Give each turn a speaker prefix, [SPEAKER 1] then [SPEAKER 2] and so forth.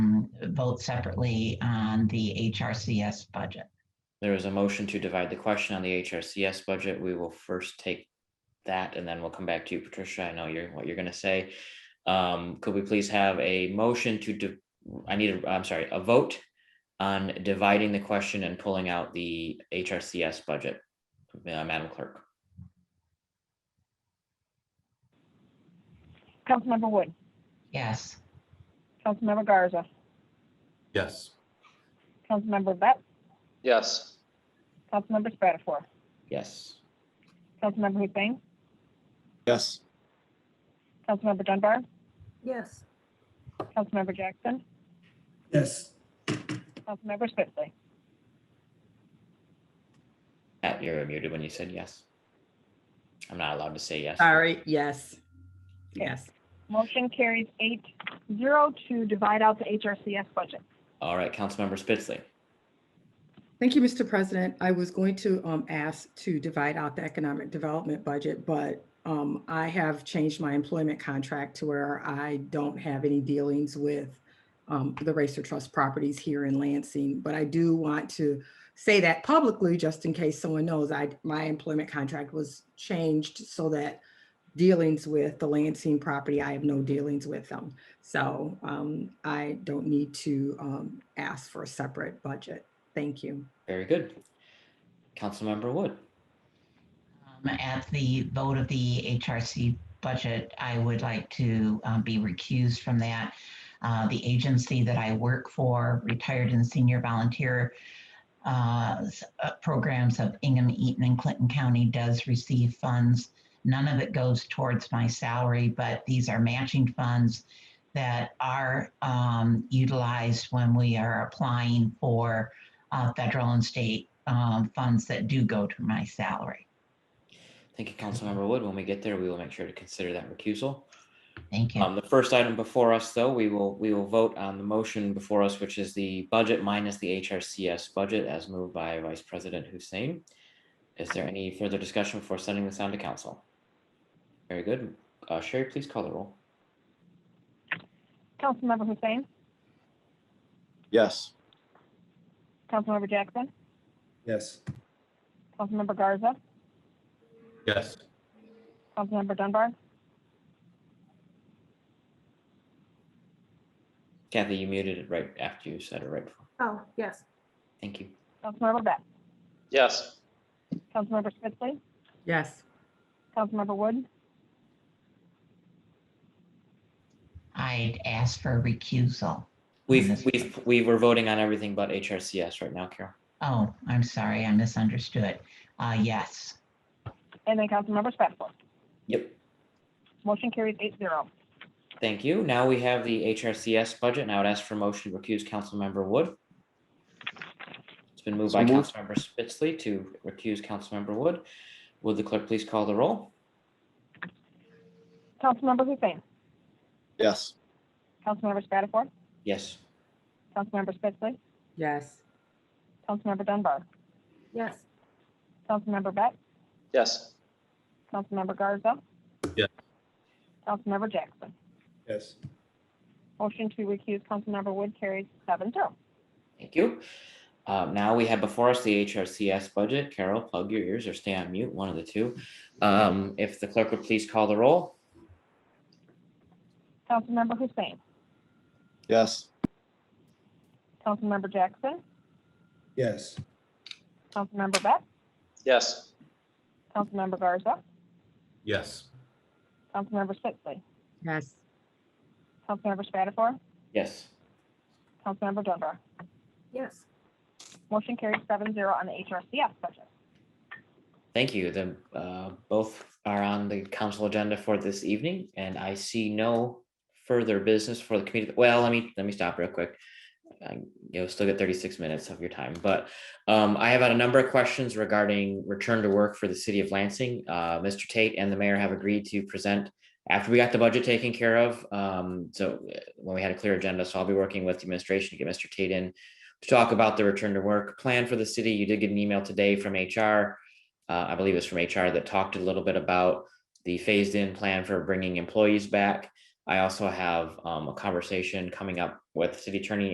[SPEAKER 1] vote separately on the HRCS budget.
[SPEAKER 2] There is a motion to divide the question on the HRCS budget. We will first take that and then we'll come back to you, Patricia. I know you're, what you're gonna say. Um, could we please have a motion to, di- I need, a am sorry, a vote on dividing the question and pulling out the HRCS budget, Uh, Madam Clerk?
[SPEAKER 3] Councilmember Wood,
[SPEAKER 1] Yes.
[SPEAKER 3] Councilmember Garza,
[SPEAKER 4] Yes.
[SPEAKER 3] Councilmember Vett,
[SPEAKER 5] yes,
[SPEAKER 3] Councilmember Spatafor,
[SPEAKER 2] Yes.
[SPEAKER 3] Councilmember Hussein,
[SPEAKER 4] Yes.
[SPEAKER 3] Councilmember Dunbar,
[SPEAKER 6] yes,
[SPEAKER 3] Councilmember Jackson,
[SPEAKER 7] yes,
[SPEAKER 3] Councilmember Spitzley,
[SPEAKER 2] Pat, you were muted when you said yes. I'm not allowed to say yes.
[SPEAKER 6] sorry, yes, yes.
[SPEAKER 3] Motion carries eight zero to divide out the HRCS budget.
[SPEAKER 2] All right, Councilmember Spitzley.
[SPEAKER 6] Thank you, Mr. President. I was going to um, ask to divide out the economic development budget, but um, I have changed my employment contract to where I don't have any dealings with um, the Racer Trust properties here in Lansing. But I do want to say that publicly, just in case someone knows, I, my employment contract was changed so that dealings with the Lansing property, I have no dealings with them. So um, I don't need to um, ask for a separate budget. Thank you.
[SPEAKER 2] Very good. Councilmember Wood.
[SPEAKER 1] Um, At the vote of the HRC budget, I would like to um, be recused from that. Uh, The agency that I work for, retired and senior volunteer uh, s- uh, programs of Ingham, Eaton, and Clinton County does receive funds. None of it goes towards my salary, but these are matching funds that are um, utilized when we are applying for uh, federal and state um, funds that do go to my salary.
[SPEAKER 2] Thank you, Councilmember Wood. When we get there, we will make sure to consider that recusal.
[SPEAKER 1] Thank you.
[SPEAKER 2] Um, the first item before us, though, we will, we will vote on the motion before us, which is the budget minus the HRCS budget as moved by Vice President Hussein. Is there any further discussion before sending this on to council? Very good. Uh, Sherry, please call the roll.
[SPEAKER 3] Councilmember Hussein,
[SPEAKER 4] Yes.
[SPEAKER 3] Councilmember Jackson,
[SPEAKER 7] yes.
[SPEAKER 3] Councilmember Garza,
[SPEAKER 4] Yes.
[SPEAKER 3] Councilmember Dunbar,
[SPEAKER 2] Kathy, you muted it right after you said it right. before.
[SPEAKER 6] Oh, yes.
[SPEAKER 2] Thank you.
[SPEAKER 3] Councilmember Vett,
[SPEAKER 5] yes,
[SPEAKER 3] Councilmember Spitzley,
[SPEAKER 6] Yes,
[SPEAKER 3] Councilmember Wood,
[SPEAKER 1] I'd ask for a recusal.
[SPEAKER 2] We've,
[SPEAKER 1] Yes.
[SPEAKER 2] we've, we were voting on everything but HRCS right now, Carol.
[SPEAKER 1] Oh, I'm sorry, I misunderstood. Uh, yes,
[SPEAKER 3] and then Councilmember Spatafor.
[SPEAKER 2] Yep.
[SPEAKER 3] Motion carries eight zero.
[SPEAKER 2] Thank you. Now we have the HRCS budget, and I would ask for a motion to recuse Councilmember Wood. It's been moved by
[SPEAKER 4] So moved.
[SPEAKER 2] Councilmember Spitzley to recuse Councilmember Wood. Would the clerk please call the roll?
[SPEAKER 3] Councilmember Hussein,
[SPEAKER 4] Yes.
[SPEAKER 3] Councilmember Spatafor,
[SPEAKER 2] Yes.
[SPEAKER 3] Councilmember Spitzley,
[SPEAKER 6] yes,
[SPEAKER 3] Councilmember Dunbar,
[SPEAKER 6] yes,
[SPEAKER 3] Councilmember Vett,
[SPEAKER 5] yes,
[SPEAKER 3] Councilmember Garza.
[SPEAKER 4] Yes.
[SPEAKER 3] Councilmember Jackson.
[SPEAKER 7] Yes.
[SPEAKER 3] Motion to recuse Councilmember Wood carries seven zero.
[SPEAKER 2] Thank you. Um, Now we have before us the HRCS budget. Carol, plug your ears or stay on mute, one of the two. Um, If the clerk would please call the roll?
[SPEAKER 3] Councilmember Hussein,
[SPEAKER 4] Yes.
[SPEAKER 3] Councilmember Jackson,
[SPEAKER 7] Yes.
[SPEAKER 3] Councilmember Vett,
[SPEAKER 5] yes.
[SPEAKER 3] Councilmember Garza,
[SPEAKER 4] Yes.
[SPEAKER 3] Councilmember Spitzley,
[SPEAKER 6] yes.
[SPEAKER 3] Councilmember Spatafor,
[SPEAKER 2] Yes.
[SPEAKER 3] Councilmember Dunbar.
[SPEAKER 6] Yes.
[SPEAKER 3] Motion carries seven zero on the HRCS budget.
[SPEAKER 2] Thank you. The, uh, both are on the council agenda for this evening, and I see no further business for the committee. Well, let me, let me stop real quick. I- You'll still get thirty-six minutes of your time, but, um, I have had a number of questions regarding return to work for the city of Lansing. Uh, Mr. Tate and the mayor have agreed to present after we got the budget taken care of, um, so uh, when we had a clear agenda, so I'll be working with the administration to get Mr. Tate in to talk about the return to work plan for the city. You did get an email today from HR uh, I believe it's from HR that talked a little bit about the phased in plan for bringing employees back. I also have um, a conversation coming up with city attorney